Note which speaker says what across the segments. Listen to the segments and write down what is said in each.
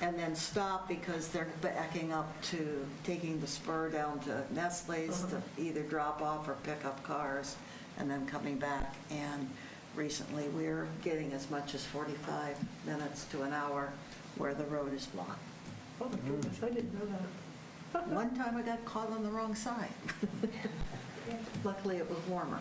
Speaker 1: and then stop because they're backing up to taking the spur down to Nestle's to either drop off or pick up cars and then coming back. And recently, we're getting as much as 45 minutes to an hour where the road is blocked.
Speaker 2: Oh my goodness, I didn't know that.
Speaker 1: One time I got caught on the wrong side. Luckily, it was warmer.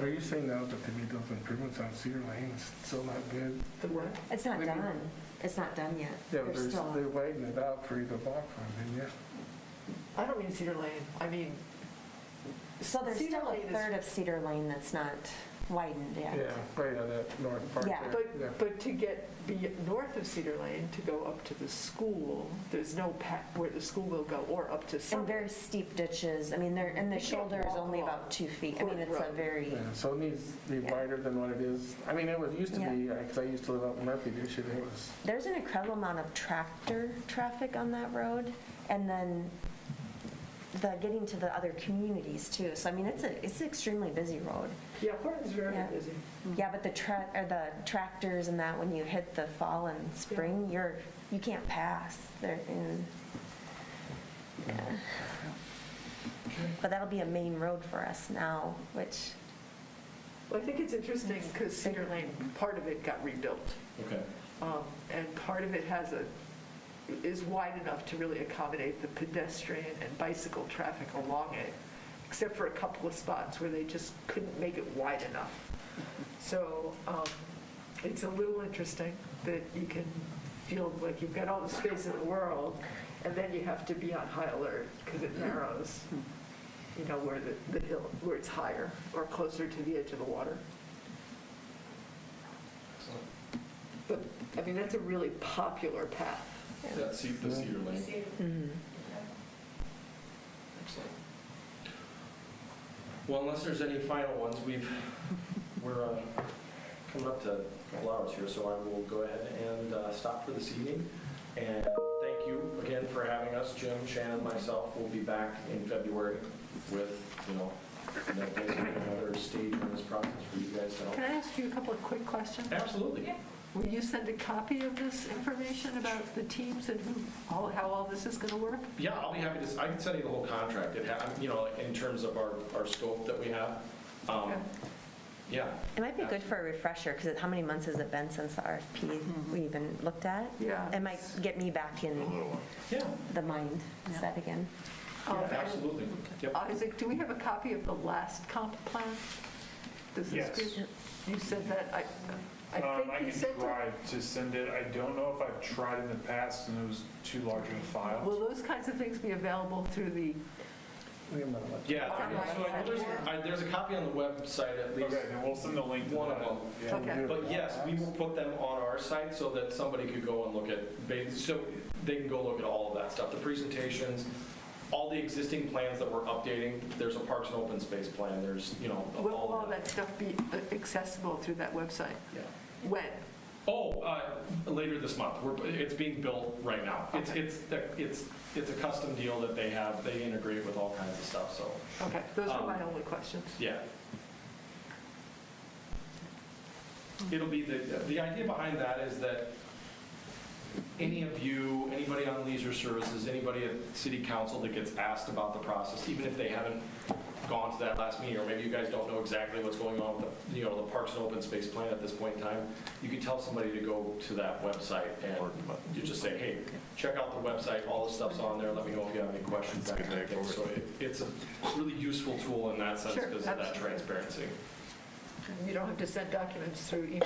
Speaker 3: Are you saying now that they made those improvements on Cedar Lane, it's still not good?
Speaker 2: The what?
Speaker 4: It's not
Speaker 3: Maybe-
Speaker 4: done. It's not done yet.
Speaker 3: Yeah,
Speaker 4: They're
Speaker 3: there's,
Speaker 4: still-
Speaker 3: they're widening it out for you to walk from, and yeah.
Speaker 2: I don't mean Cedar Lane, I mean,
Speaker 4: So there's
Speaker 2: Cedar
Speaker 4: still a
Speaker 2: Lane is-
Speaker 4: third of Cedar Lane that's not widened yet.
Speaker 3: Yeah, right on that north part
Speaker 4: Yeah.
Speaker 3: there.
Speaker 2: but, but to get be north of Cedar Lane, to go up to the school, there's no path where the school will go, or up to
Speaker 4: And
Speaker 2: some.
Speaker 4: very steep ditches. I mean, they're, and the
Speaker 2: You can't
Speaker 4: shoulder is
Speaker 2: walk
Speaker 4: only
Speaker 2: along
Speaker 4: about two feet. I mean,
Speaker 2: Court
Speaker 4: it's a
Speaker 2: Road.
Speaker 4: very,
Speaker 3: Yeah, so it needs to be wider than what it is. I mean, it was, used to be, because I used to live out in Murphy, this year, it was,
Speaker 4: there's an incredible amount of tractor traffic on that road. And then the, getting to the other communities too. So I mean, it's a, it's an extremely busy road.
Speaker 2: Yeah, Horton's very
Speaker 4: Yeah.
Speaker 2: busy.
Speaker 4: Yeah, but the tra, or the tractors and that, when you hit the fall and spring, you're, you can't pass. They're in. yeah. But that'll be a main road for us now, which,
Speaker 2: Well, I think it's interesting, because Cedar Lane, part of it got rebuilt.
Speaker 5: Okay.
Speaker 2: Um, And part of it has a, is wide enough to really accommodate the pedestrian and bicycle traffic along it, except for a couple of spots where they just couldn't make it wide enough. So um, it's a little interesting that you can feel like you've got all the space in the world, and then you have to be on high alert because it narrows, you know, where the, the hill, where it's higher or closer to the edge of the water.
Speaker 5: So
Speaker 2: But, I mean, that's a really popular path.
Speaker 5: That seat, the Cedar Lane.
Speaker 2: Mm-hmm.
Speaker 5: Excellent. Well, unless there's any final ones, we've, we're uh, coming up to a couple hours here, so I will go ahead and uh, stop for this evening. And thank you again for having us, Jim, Shannon, myself. We'll be back in February with, you know, another- another stage in this process for you guys to
Speaker 2: Can
Speaker 5: help.
Speaker 2: I ask you a couple of quick questions?
Speaker 5: Absolutely.
Speaker 2: Will you send a copy of this information about the teams and who, all- how all this is going to work?
Speaker 5: Yeah, I'll be happy to, I can send you the whole contract, it, ha- you know, in terms of our, our scope that we have. Um,
Speaker 2: Okay.
Speaker 5: Yeah.
Speaker 4: it might be good for a refresher, because how many months has it been since the RFP we even looked at?
Speaker 2: Yeah.
Speaker 4: It might get me back in
Speaker 5: Yeah,
Speaker 4: the mindset again.
Speaker 5: yeah,
Speaker 2: Um, and-
Speaker 5: absolutely. Yep.
Speaker 2: Isaac, do we have a copy of the last comp plan? Does this
Speaker 6: Yes.
Speaker 2: group- You sent that, I,
Speaker 6: Um,
Speaker 2: I
Speaker 6: I
Speaker 2: think you
Speaker 6: can
Speaker 2: sent it.
Speaker 6: try to send it. I don't know if I've tried in the past and it was too large of a
Speaker 2: Will
Speaker 6: file.
Speaker 2: those kinds of things be available through the,
Speaker 3: we might have-
Speaker 5: Yeah, there- so I know there's, I- there's a copy on the website at
Speaker 6: Okay,
Speaker 5: least,
Speaker 6: then we'll send the link to
Speaker 5: One of
Speaker 6: that.
Speaker 5: them.
Speaker 6: Yeah.
Speaker 2: okay,
Speaker 5: but yes, we will put them on our site so that somebody could go and look at, ba- so they can go look at all of that stuff, the presentations, all the existing plans that we're updating, there's a parks and open space plan, there's, you know,
Speaker 2: will
Speaker 5: all
Speaker 2: all
Speaker 5: of
Speaker 2: that
Speaker 5: that.
Speaker 2: stuff be accessible through that website?
Speaker 5: Yeah.
Speaker 2: When?
Speaker 5: Oh, uh, later this month. We're, it's being built right now. It's,
Speaker 2: Okay.
Speaker 5: it's, it's, it's a custom deal that they have. They integrate with all kinds of stuff, so,
Speaker 2: Okay, those are
Speaker 5: Um,
Speaker 2: my only questions.
Speaker 5: yeah. It'll be, the, the idea behind that is that any of you, anybody on leisure services, anybody at city council that gets asked about the process, even if they haven't gone to that last meeting, or maybe you guys don't know exactly what's going on with the, you know, the Parks and Open Space Plan at this point in time, you can tell somebody to go to that website and you just say, hey, check out the website, all the stuff's on there, let me know if you have any questions. that kind of thing. So it- it's a really useful tool in that sense
Speaker 2: Sure,
Speaker 5: because of that
Speaker 2: absolutely.
Speaker 5: transparency.
Speaker 2: You don't have to send documents through email.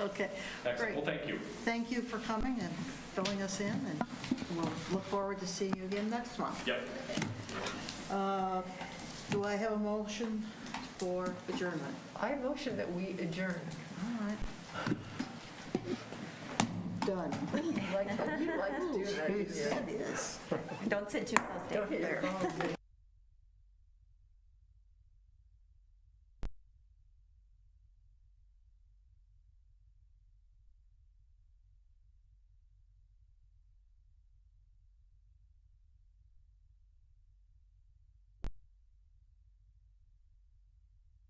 Speaker 1: Okay.
Speaker 5: Excellent,
Speaker 1: Great.
Speaker 5: well, thank you.
Speaker 1: Thank you for coming and filling us in, and we'll look forward to seeing you again next month.
Speaker 5: Yep.
Speaker 1: Uh, Do I have a motion for adjournment?
Speaker 2: I motion that we adjourn.
Speaker 1: All right. Done.
Speaker 2: You like you like to do that.
Speaker 1: Yes,
Speaker 2: yeah.
Speaker 1: it is.
Speaker 4: Don't sit too close
Speaker 2: Don't hit
Speaker 4: down
Speaker 2: your phone.